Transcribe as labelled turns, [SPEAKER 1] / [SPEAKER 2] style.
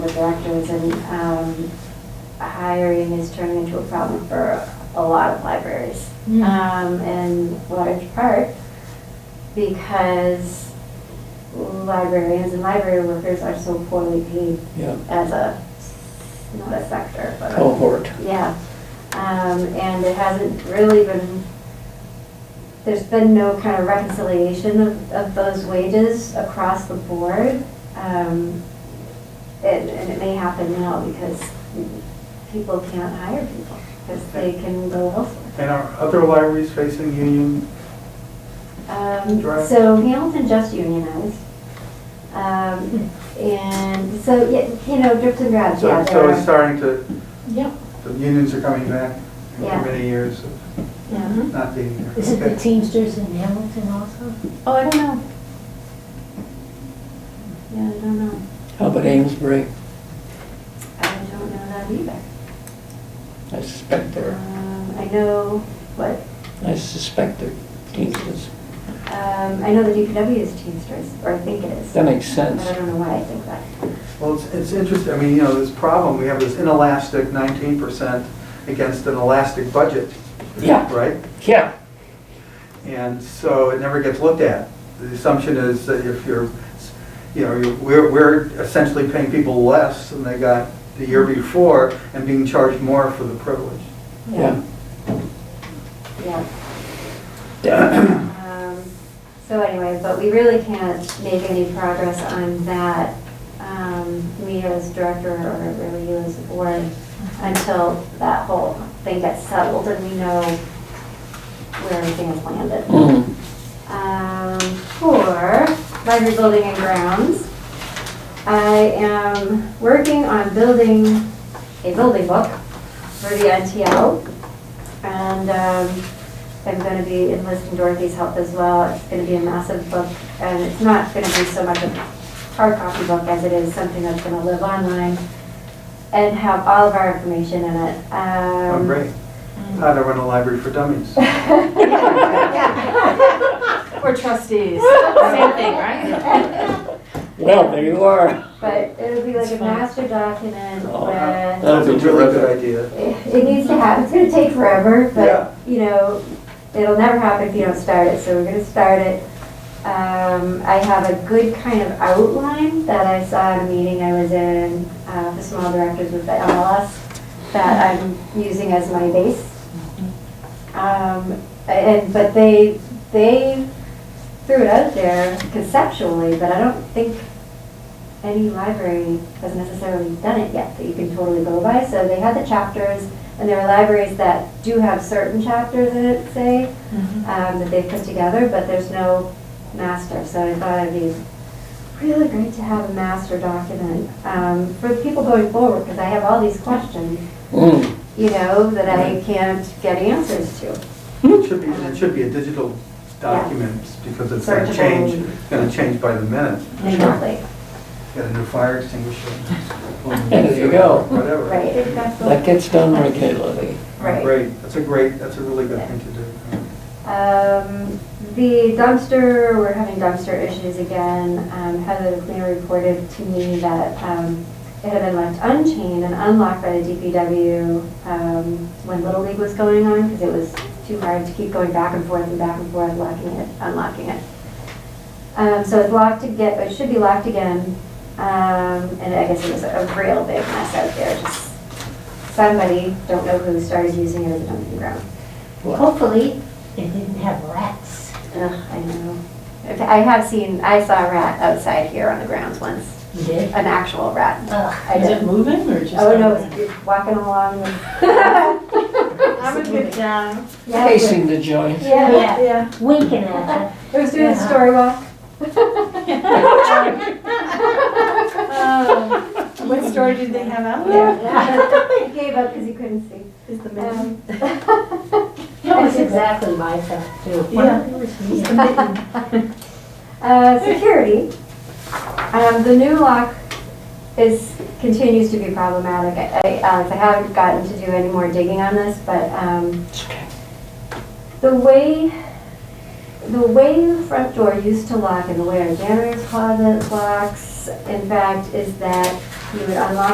[SPEAKER 1] with directors and um, hiring is turning into a problem for a lot of libraries.
[SPEAKER 2] Mm.
[SPEAKER 1] Um, in large part because librarians and library workers are so poorly paid
[SPEAKER 3] Yeah, Oh,
[SPEAKER 1] as a, not a sector, but. a-
[SPEAKER 3] cohort.
[SPEAKER 1] yeah, um, and it hasn't really been, there's been no kind of reconciliation of, of those wages across the board. Um, and, and it may happen now because people can't hire people, because they can go elsewhere.
[SPEAKER 4] And are other libraries facing union?
[SPEAKER 1] Um,
[SPEAKER 4] Right.
[SPEAKER 1] So Hamilton just unionized. Um, And so, yeah, you know, drips and drabs, yeah. there
[SPEAKER 4] So so
[SPEAKER 1] are-
[SPEAKER 4] it's starting to,
[SPEAKER 2] Yeah.
[SPEAKER 4] the unions are coming back
[SPEAKER 1] Yeah.
[SPEAKER 4] after many years of
[SPEAKER 1] Yeah.
[SPEAKER 4] not being here.
[SPEAKER 2] Is it the
[SPEAKER 4] Okay.
[SPEAKER 2] Teamsters in Hamilton also?
[SPEAKER 1] Oh, I don't know. Yeah, I don't know.
[SPEAKER 3] How about Amesbury?
[SPEAKER 1] I don't know that either.
[SPEAKER 3] I suspect they're,
[SPEAKER 1] Um, I know what,
[SPEAKER 3] I suspect they're Teamsters.
[SPEAKER 1] um, I know the DPW is Teamsters, or I think it is.
[SPEAKER 3] That makes
[SPEAKER 1] But
[SPEAKER 3] sense.
[SPEAKER 1] I don't know why I think that.
[SPEAKER 4] Well, it's, it's interesting, I mean, you know, this problem, we have this inelastic 19% against an elastic budget,
[SPEAKER 3] Yeah,
[SPEAKER 4] right?
[SPEAKER 3] yeah,
[SPEAKER 4] And so it never gets looked at. The assumption is that if you're, you know, you're- we're, we're essentially paying people less than they got the year before and being charged more for the privilege.
[SPEAKER 3] yeah.
[SPEAKER 1] Yeah.
[SPEAKER 3] Yeah.
[SPEAKER 1] Um, So anyway, but we really can't make any progress on that, um, me as director or really you as a board, until that whole thing gets settled and we know where everything has landed.
[SPEAKER 3] Mm.
[SPEAKER 1] um, for library building and grounds. I am working on building a building book for the NTL. And um, I'm going to be enlisting Dorothy's help as well. It's going to be a massive book and it's not going to be so much a hard copy book as it is something that's going to live online and have all of our information in it.
[SPEAKER 4] Oh,
[SPEAKER 1] Um,
[SPEAKER 4] great. How to run a library for dummies. Well,
[SPEAKER 5] Or trustees, same thing, right?
[SPEAKER 3] Well, there you are.
[SPEAKER 1] But it'll be like a
[SPEAKER 5] It's fine.
[SPEAKER 1] master document
[SPEAKER 3] Oh,
[SPEAKER 1] with
[SPEAKER 3] That
[SPEAKER 4] That's a
[SPEAKER 3] would be
[SPEAKER 4] really
[SPEAKER 3] terrific.
[SPEAKER 4] good idea.
[SPEAKER 1] it it needs to happen, it's gonna take forever,
[SPEAKER 4] Yeah.
[SPEAKER 1] but, you know, it'll never happen if you don't start it, so we're gonna start it. Um, I have a good kind of outline that I saw at a meeting I was in, uh, for small directors with the MLS, that I'm using as my base. Um, and, but they, they threw it out there conceptually, but I don't think any library has necessarily done it yet that you can totally go by. So they had the chapters, and there are libraries that do have certain chapters in it, say, um, that they've put together, but there's no master. So I thought it'd be really great to have a master document um, for the people going forward, because I have all these questions,
[SPEAKER 3] Mm.
[SPEAKER 1] you know, that I can't get answers to.
[SPEAKER 4] It should be, it should be a digital document because it's gonna
[SPEAKER 1] Searchable.
[SPEAKER 4] change, gonna change by the minute.
[SPEAKER 1] Exactly.
[SPEAKER 4] Get a new fire extinguisher.
[SPEAKER 3] There you go.
[SPEAKER 4] Whatever.
[SPEAKER 1] Right.
[SPEAKER 3] That gets done regularly.
[SPEAKER 1] Right.
[SPEAKER 4] Great, that's a great, that's a really good thing to do.
[SPEAKER 1] Um, the dumpster, we're having dumpster issues again. Um, Heather, the cleaner, reported to me that, um, it had been left unchained and unlocked by the DPW, um, when Little League was going on, because it was too hard to keep going back and forth and back and forth, locking it, unlocking it. Um, so it's locked to get, it should be locked again. Um, and I guess it was a real big mess out there, just somebody, don't know who, started using it as a dumping ground.
[SPEAKER 3] Wow.
[SPEAKER 1] Hopefully,
[SPEAKER 2] They didn't have rats.
[SPEAKER 1] Ugh, I know. If- I have seen, I saw a rat outside here on the grounds once,
[SPEAKER 2] You did?
[SPEAKER 1] an actual rat.
[SPEAKER 2] Ugh.
[SPEAKER 1] I
[SPEAKER 5] Is it
[SPEAKER 1] did.
[SPEAKER 5] moving or just?
[SPEAKER 1] Oh, no, it's it's walking along. with-
[SPEAKER 5] I would get down.
[SPEAKER 1] Yeah, it was-
[SPEAKER 3] Pacing the joint.
[SPEAKER 1] Oh, Yeah,
[SPEAKER 2] Yeah,
[SPEAKER 5] Yeah.
[SPEAKER 2] winking at
[SPEAKER 1] it was doing the story walk.
[SPEAKER 5] Um, What story did they have out there?
[SPEAKER 1] Yeah. He gave up because he couldn't see.
[SPEAKER 5] Is the
[SPEAKER 1] Um,
[SPEAKER 2] you. That was exactly my thought too.
[SPEAKER 5] Yeah.
[SPEAKER 2] Yeah.
[SPEAKER 1] Uh, security. Um, the new lock is, continues to be problematic. I, I, Alex, I haven't gotten to do any more digging on this, but, um,
[SPEAKER 3] It's okay.
[SPEAKER 1] The way, the way the front door used to lock and the way our janitor's closet locks, in fact, is that you would unlock